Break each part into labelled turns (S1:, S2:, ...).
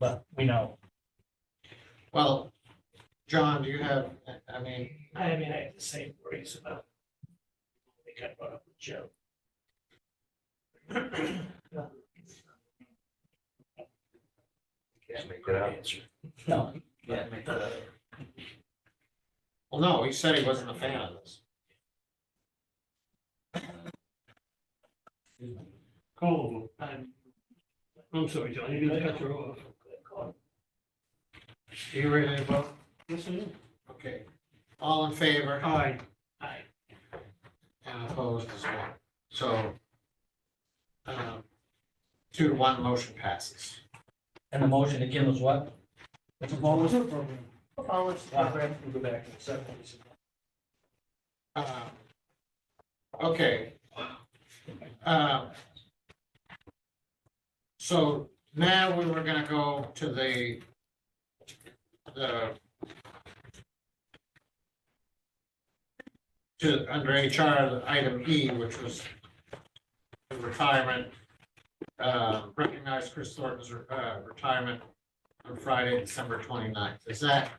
S1: but we know.
S2: Well, John, do you have, I mean,
S3: I mean, I have the same worries about. I think I brought up with Joe.
S4: Can't make it out.
S3: Answer.
S1: No,
S2: well, no, he said he wasn't a fan of this.
S3: Call them. I'm, I'm sorry, John, you didn't cut her off.
S2: Do you ready to vote?
S3: Yes, I am.
S2: Okay. All in favor?
S3: Aye. Aye.
S2: And opposed as well. So um, two to one, motion passes.
S1: and the motion again was what? It's a bonus program.
S5: Policy program.
S1: Program, we'll go back in a second.
S2: Um, Okay. Um, So now we were gonna go to the the to, under HR, item E, which was the retirement, uh, recognize Chris Thornton's uh, retirement on Friday, December 29th. Is that?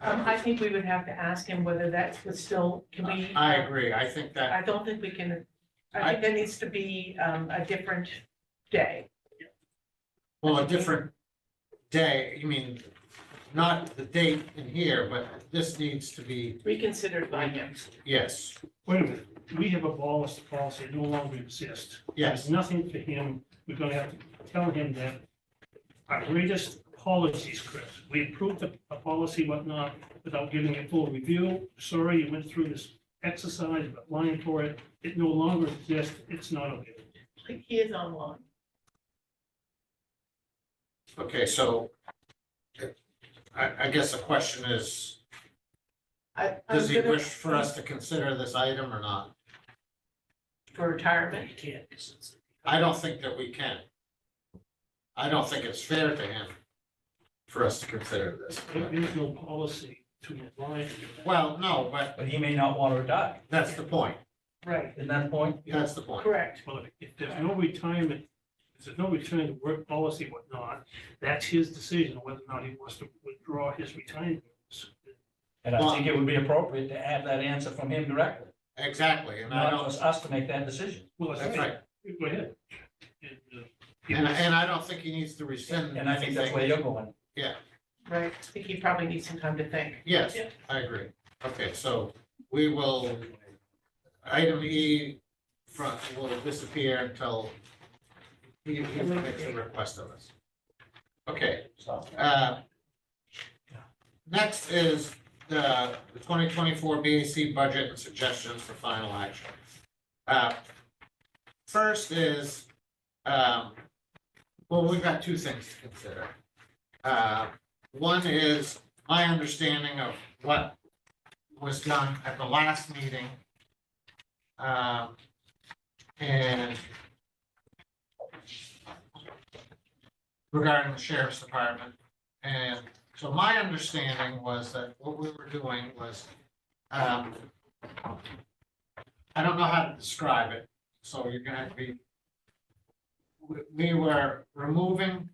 S5: Um, I think we would have to ask him whether that was still, can we?
S2: I agree. I think that
S5: I don't think we can, I think there needs to be, um, a different day.
S2: Well, a different day, you mean, not the date in here, but this needs to be,
S5: reconsidered by him.
S2: yes,
S3: Wait a minute, we have abolished the policy, it no longer exists.
S2: yes.
S3: There's nothing for him, we're gonna have to tell him that our greatest policies, Chris, we approved a, a policy, whatnot, without giving it full review. Sorry, you went through this exercise, but lying for it, it no longer exists, it's not okay.
S5: He is online.
S2: Okay, so I, I guess the question is,
S5: I, I'm
S2: does he
S5: gonna-
S2: wish for us to consider this item or not?
S5: For retirement.
S3: can't, 'cause it's-
S2: I don't think that we can. I don't think it's fair to him for us to consider this.
S3: There is no policy to apply.
S2: Well, no, but
S1: But he may not want to retire,
S2: that's the point.
S5: Right,
S1: isn't that the point?
S2: That's the point.
S5: correct.
S3: Well, if- if there's no retirement, if there's no return to work policy, whatnot, that's his decision, whether or not he wants to withdraw his retirement.
S1: And I think it would be appropriate to have that answer from him directly,
S2: Exactly, and I
S1: not
S2: don't,
S1: us, us to make that decision.
S3: Well,
S2: that's right.
S3: Go ahead. And, uh,
S2: And, and I don't think he needs to rescind.
S1: And I think that's
S2: anything.
S1: where you're going.
S5: Right, I think he probably needs some time to think.
S2: Yes,
S5: Yeah.
S2: I agree. Okay, so we will, item E front will disappear until he, he makes a request of us. Okay,
S1: So,
S2: uh, next is the twenty twenty-four BAC budget and suggestions for final action. Uh, First is, um, well, we've got two things to consider. Uh, One is my understanding of what was done at the last meeting. Um, And regarding the sheriff's department. And so my understanding was that what we were doing was, um, I don't know how to describe it, so you're gonna have to be. We- We were removing,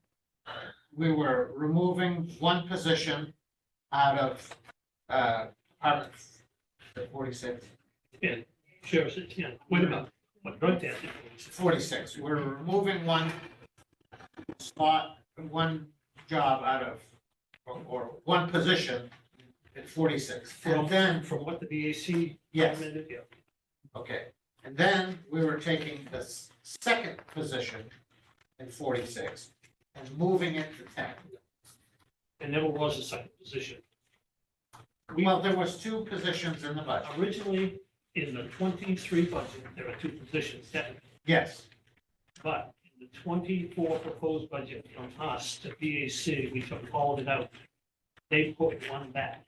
S2: we were removing one position out of, uh, Department forty-six,
S3: Sheriff, yeah, what about, what about that?
S2: forty-six, we're removing one spot, one job out of, or, or one position at forty-six. And then,
S3: From what the BAC.
S2: yes,
S3: recommended, yeah.
S2: Okay, and then we were taking the s- second position in forty-six and moving it to ten.
S3: It never was a second position. We
S2: Well, there was two positions in the budget,
S3: originally, in the twenty-three budget, there are two positions that
S2: yes,
S3: But in the twenty-four proposed budget from us to BAC, we took all of it out. They put one back.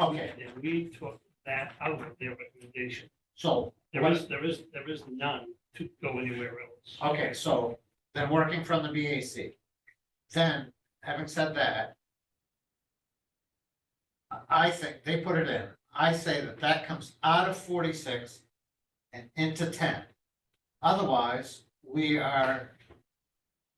S2: Okay.
S3: And we took that out of their recommendation.
S2: so,
S3: There is, there is, there is none to go anywhere else.
S2: okay, so then working from the BAC. Then, having said that, I- I think, they put it in, I say that that comes out of forty-six and into ten. Otherwise, we are